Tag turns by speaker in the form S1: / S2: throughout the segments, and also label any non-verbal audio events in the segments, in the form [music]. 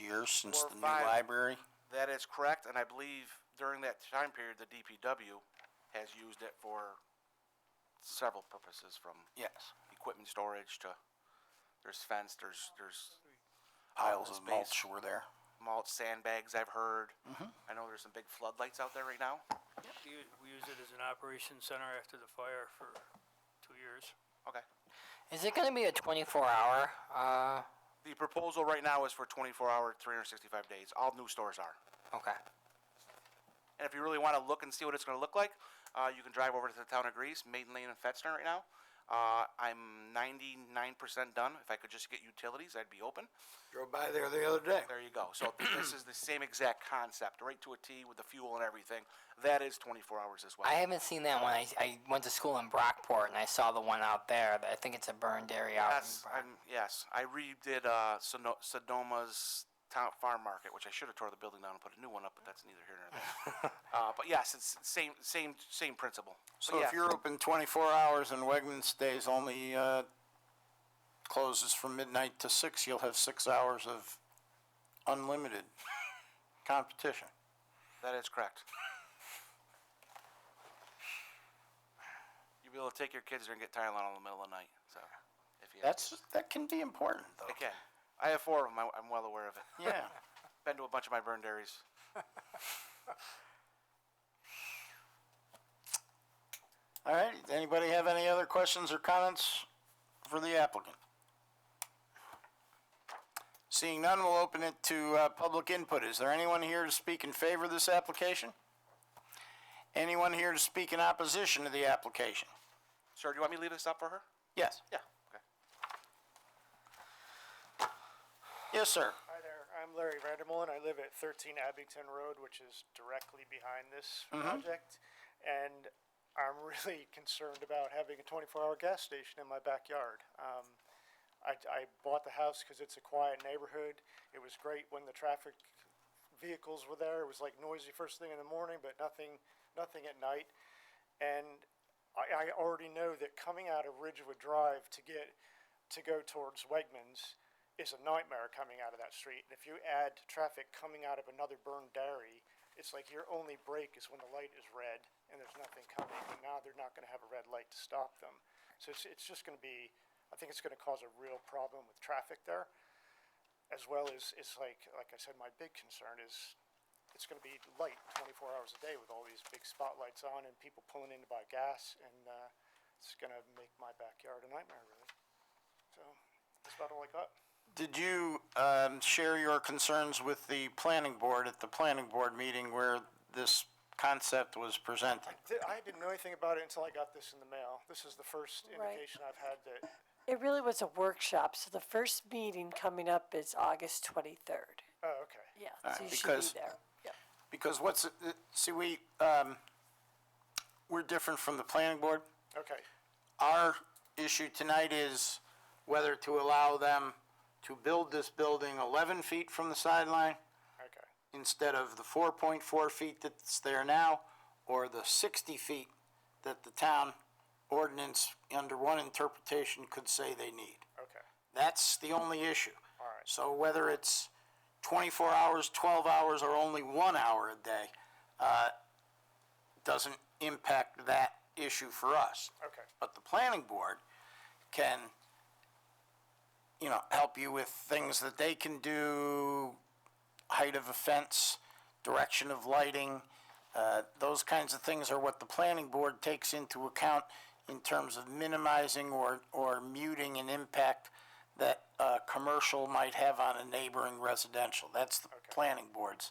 S1: year since
S2: Four or
S1: the new
S2: five.
S1: library?
S2: That is correct, and I believe during that time period, the DPW has used it for several purposes, from
S1: Yes.
S2: equipment storage to, there's fence, there's, there's
S1: Piles of
S2: Space.
S1: mulch were there.
S2: mulch, sandbags, I've heard. I know there's some big floodlights out there right now.
S3: We u- we used it as an operations center after the fire for two years.
S2: Okay.
S4: Is it going to be a 24 hour? Uh,
S2: The proposal right now is for twenty-four hour, three hundred and sixty-five days. All new stores are.
S4: okay.
S2: And if you really want to look and see what it's going to look like, uh, you can drive over to the town of Greece, Maiden Lane and Fetzner right now. Uh, I'm 99% done. If I could just get utilities, I'd be open.
S5: Drove by there the other day.
S2: There you go. So this is the same exact concept, right to a T with the fuel and everything. That is 24 hours as well.
S4: I haven't seen that one. I, I went to school in Brockport and I saw the one out there. That I think it's a burned area out
S2: yes,
S4: in Brock-
S2: I'm, yes. I redid uh, Sono- Sonoma's town farm market, which I should have tore the building down and put a new one up, but that's neither here nor there. uh, but yes, it's same, same, same principle. But
S1: So if
S2: oh, yeah.
S1: you're open twenty-four hours and Wegmans stays only, uh, closes from midnight to six, you'll have six hours of unlimited [laughs] competition.
S2: That is correct. You'll be able to take your kids there and get Tylenol in the middle of the night, so, if you.
S1: That's, that can be important though.
S2: Okay, I have four of them, I'm well aware of it.
S1: Yeah.
S2: Been to a bunch of my burn dairies.
S1: All right, anybody have any other questions or comments for the applicant? Seeing none, we'll open it to uh, public input. Is there anyone here to speak in favor of this application? Anyone here to speak in opposition to the application?
S2: Sir, do you want me to leave this up for her?
S1: Yes,
S2: Yeah. Okay.
S1: yes, sir.
S6: Hi there, I'm Larry Vandermolen. I live at 13 Abington Road, which is directly behind this project. And I'm really [laughs] concerned about having a 24-hour gas station in my backyard. Um, I, I bought the house because it's a quiet neighborhood. It was great when the traffic vehicles were there. It was like noisy first thing in the morning, but nothing, nothing at night. And I, I already know that coming out of Ridgewood Drive to get, to go towards Wegmans is a nightmare coming out of that street. And if you add traffic coming out of another burned dairy, it's like your only break is when the light is red and there's nothing coming. And now they're not gonna have a red light to stop them. So it's, it's just gonna be, I think it's gonna cause a real problem with traffic there. As well as, it's like, like I said, my big concern is it's gonna be light twenty-four hours a day with all these big spotlights on and people pulling in to buy gas and, uh, it's gonna make my backyard a nightmare really. So, that's about all I got.
S1: Did you um, share your concerns with the planning board at the planning board meeting where this concept was presented?
S6: Th- I didn't know anything about it until I got this in the mail. This is the first
S7: Right.
S6: indication I've had that,
S7: It really was a workshop, so the first meeting coming up is August twenty-third.
S6: oh, okay.
S7: Yeah,
S1: right,
S7: so you
S1: because-
S7: should be there. Yep.
S1: Because what's, it- it- see, we, um, we're different from the planning board.
S6: Okay,
S1: Our issue tonight is whether to allow them to build this building 11 feet from the sideline
S6: okay,
S1: instead of the 4.4 feet that's there now, or the 60 feet that the town ordinance, under one interpretation, could say they need.
S6: okay.
S1: That's the only issue.
S6: All right.
S1: So whether it's twenty-four hours, twelve hours, or only one hour a day, uh, doesn't impact that issue for us.
S6: Okay.
S1: But the planning board can, you know, help you with things that they can do, height of a fence, direction of lighting, uh, those kinds of things are what the planning board takes into account in terms of minimizing or, or muting an impact that a commercial might have on a neighboring residential. That's the planning board's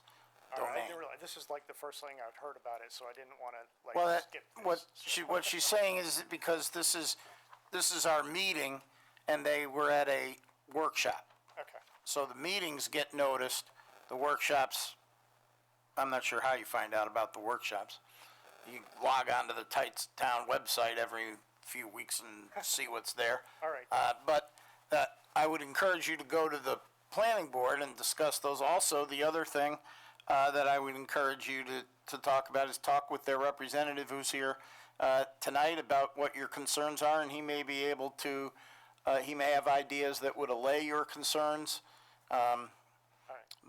S6: All right, I
S1: domain.
S6: didn't realize, this is like the first thing I've heard about it, so I didn't want to
S1: Well,
S6: like
S1: that,
S6: skip this.
S1: what
S6: so-
S1: she, what she's saying is that because this is, this is our meeting and they were at a workshop.
S6: Okay,
S1: So the meetings get noticed, the workshops, I'm not sure how you find out about the workshops. You log onto the Tights Town website every few weeks and
S6: [laughs]
S1: see what's there.
S6: All right.
S1: Uh, but, uh, I would encourage you to go to the planning board and discuss those. Also, the other thing, uh, that I would encourage you to, to talk about is talk with their representative who's here, uh, tonight about what your concerns are, and he may be able to, uh, he may have ideas that would allay your concerns. Um,